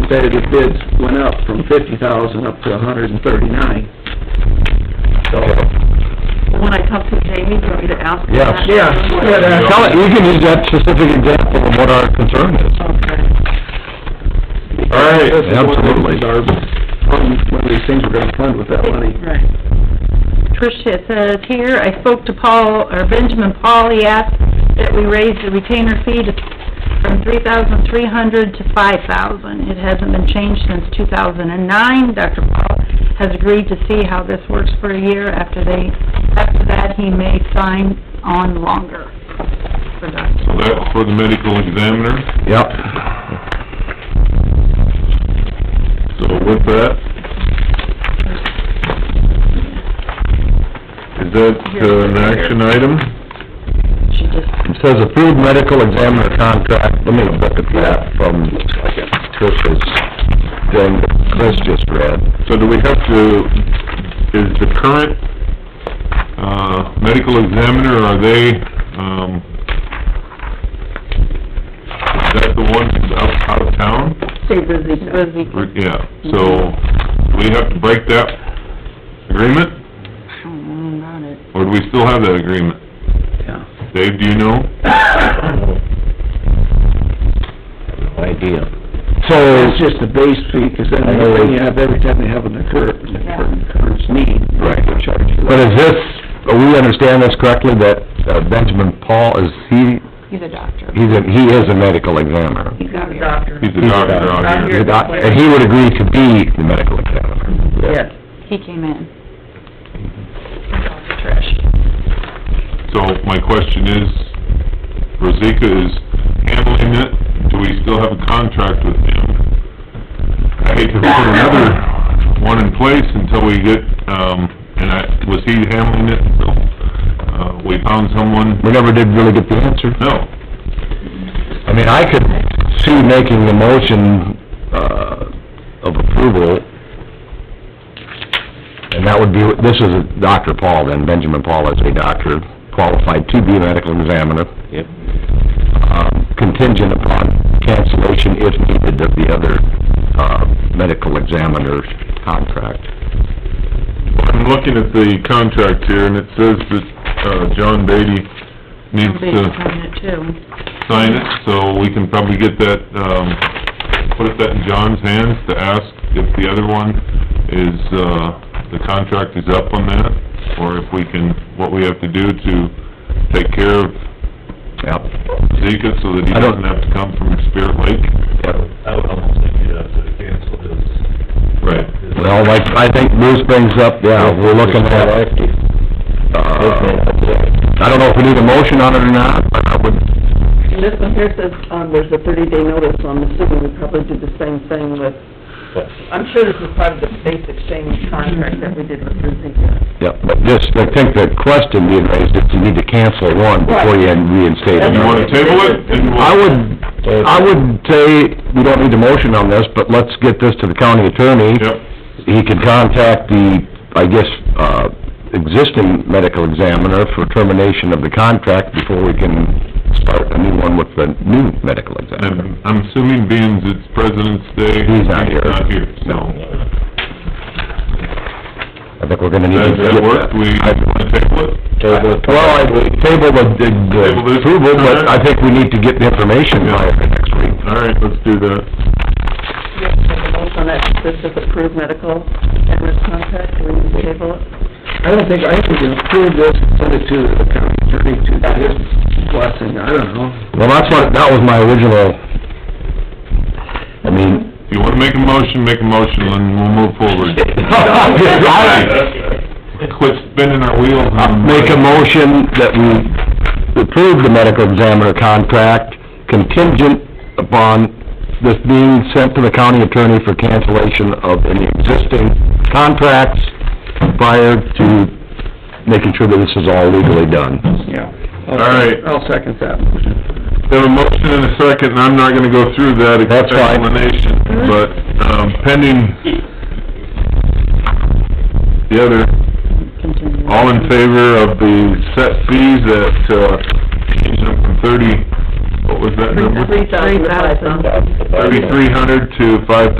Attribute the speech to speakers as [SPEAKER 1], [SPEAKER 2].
[SPEAKER 1] competitive bids went up from fifty thousand up to a hundred and thirty-nine. So,
[SPEAKER 2] When I talked to Jamie, do you want me to ask? him
[SPEAKER 3] Yeah.
[SPEAKER 2] that?
[SPEAKER 1] yeah, yeah,
[SPEAKER 3] Tell it, you can use that specific example of what our concern is.
[SPEAKER 2] Okay.
[SPEAKER 3] All right,
[SPEAKER 1] This is one of
[SPEAKER 3] absolutely.
[SPEAKER 1] our- One of these things we're gonna fund with that money.
[SPEAKER 2] Right. Trish, it says here, I spoke to Paul, or Benjamin Paul, he asked that we raise the retainer fee to, from three thousand three hundred to five thousand. It hasn't been changed since two thousand and nine. Dr. Paul has agreed to see how this works for a year. After they, after that, he may sign on longer for Dr.
[SPEAKER 4] So that's for the medical examiner,
[SPEAKER 3] Yep.
[SPEAKER 4] so with that, is that uh, an action item?
[SPEAKER 2] She just,
[SPEAKER 3] It says approved medical examiner contract, let me look at that from Trish's thing that Chris just read.
[SPEAKER 4] So do we have to, is the current, uh, medical examiner, are they, um, is that the one out, out of town?
[SPEAKER 2] say busy. Busy.
[SPEAKER 4] Or- Yeah, so, do we have to break that agreement,
[SPEAKER 2] Mm, Not it.
[SPEAKER 4] or do we still have that agreement?
[SPEAKER 1] Yeah.
[SPEAKER 4] Dave, do you know?
[SPEAKER 3] Idea. So,
[SPEAKER 1] It's just the base fee, 'cause then everything you have, every time they have an occur, an occurrence need,
[SPEAKER 3] Right.
[SPEAKER 1] they charge you.
[SPEAKER 3] but is this, we understand this correctly, that uh, Benjamin Paul, is he,
[SPEAKER 2] He's a doctor.
[SPEAKER 3] he's a, he is a medical examiner?
[SPEAKER 2] He's not a doctor.
[SPEAKER 4] He's a doctor out
[SPEAKER 3] He's a
[SPEAKER 4] here.
[SPEAKER 3] doc- And he would agree to be the medical examiner?
[SPEAKER 5] Yes.
[SPEAKER 2] He came in.
[SPEAKER 4] So my question is, Rosika is handling it, do we still have a contract with him? I hate to put another one in place until we get, um, and I, was he handling it until, uh, we found someone?
[SPEAKER 3] We never did really get the answer.
[SPEAKER 4] No,
[SPEAKER 3] I mean, I could see making the motion, uh, of approval, and that would be, this is Dr. Paul then, Benjamin Paul is a doctor, qualified to be a medical examiner. Yep. Um, contingent upon cancellation if needed of the other, uh, medical examiner's contract.
[SPEAKER 4] I'm looking at the contract here, and it says that, uh, John Beatty needs
[SPEAKER 2] Big
[SPEAKER 4] to
[SPEAKER 2] component too.
[SPEAKER 4] sign it, so we can probably get that, um, put that in John's hands to ask if the other one is, uh, the contract is up on that, or if we can, what we have to do to take care of
[SPEAKER 3] Yep.
[SPEAKER 4] Zika so that he
[SPEAKER 3] I don't-
[SPEAKER 4] doesn't have to come from Spirit Lake.
[SPEAKER 3] Yep.
[SPEAKER 6] I would almost think you'd have to cancel his...
[SPEAKER 4] Right.
[SPEAKER 6] his-
[SPEAKER 3] Well, like, I think Bruce brings up, yeah, we're looking at, uh, I don't know if we need a motion on it or not, but I would,
[SPEAKER 5] And this one here says, um, there's a thirty-day notice, so I'm assuming we probably do the same thing with, I'm sure this is part of the basic same contract that we did with Rosita.
[SPEAKER 3] yeah, but just, I think the question being raised is you need to cancel one before you reinstate
[SPEAKER 4] You
[SPEAKER 3] another.
[SPEAKER 4] wanna table it? Then we'll-
[SPEAKER 3] I would, I would say, we don't need a motion on this, but let's get this to the county attorney.
[SPEAKER 4] Yep,
[SPEAKER 3] He can contact the, I guess, uh, existing medical examiner for termination of the contract before we can start a new one with the new medical examiner.
[SPEAKER 4] and I'm assuming being it's President's Day.
[SPEAKER 3] He's not here.
[SPEAKER 4] not here, so.
[SPEAKER 3] I think we're gonna need to
[SPEAKER 4] Does
[SPEAKER 3] get
[SPEAKER 4] that
[SPEAKER 3] that.
[SPEAKER 4] work? We, wanna table it?
[SPEAKER 3] Well, I would table the, the-
[SPEAKER 4] Table
[SPEAKER 3] the
[SPEAKER 4] this?
[SPEAKER 3] approval, but I think we need to get the information by next week.
[SPEAKER 4] All right, let's do that.
[SPEAKER 5] You have to make a motion that this is approved medical and risk contract, do we need to table it?
[SPEAKER 1] I don't think, I think we can approve this, send it to the county attorney to his blessing, I don't know.
[SPEAKER 3] Well, that's what, that was my original, I mean,
[SPEAKER 4] If you wanna make a motion, make a motion, and we'll move forward. Quit spinning our wheels
[SPEAKER 3] I'll
[SPEAKER 4] and...
[SPEAKER 3] uh, make a motion that we approve the medical examiner contract contingent upon this being sent to the county attorney for cancellation of any existing contracts prior to making sure that this is all legally done.
[SPEAKER 1] Yeah.
[SPEAKER 4] All right.
[SPEAKER 1] I'll second that motion.
[SPEAKER 4] Have a motion and a second, and I'm not gonna go through that
[SPEAKER 3] That's fine.
[SPEAKER 4] explanation, but, um, pending the other, all in favor of the set fees that, uh, changed up from thirty, what was that number?
[SPEAKER 5] Three thousand to five thousand.
[SPEAKER 4] Thirty-three hundred to five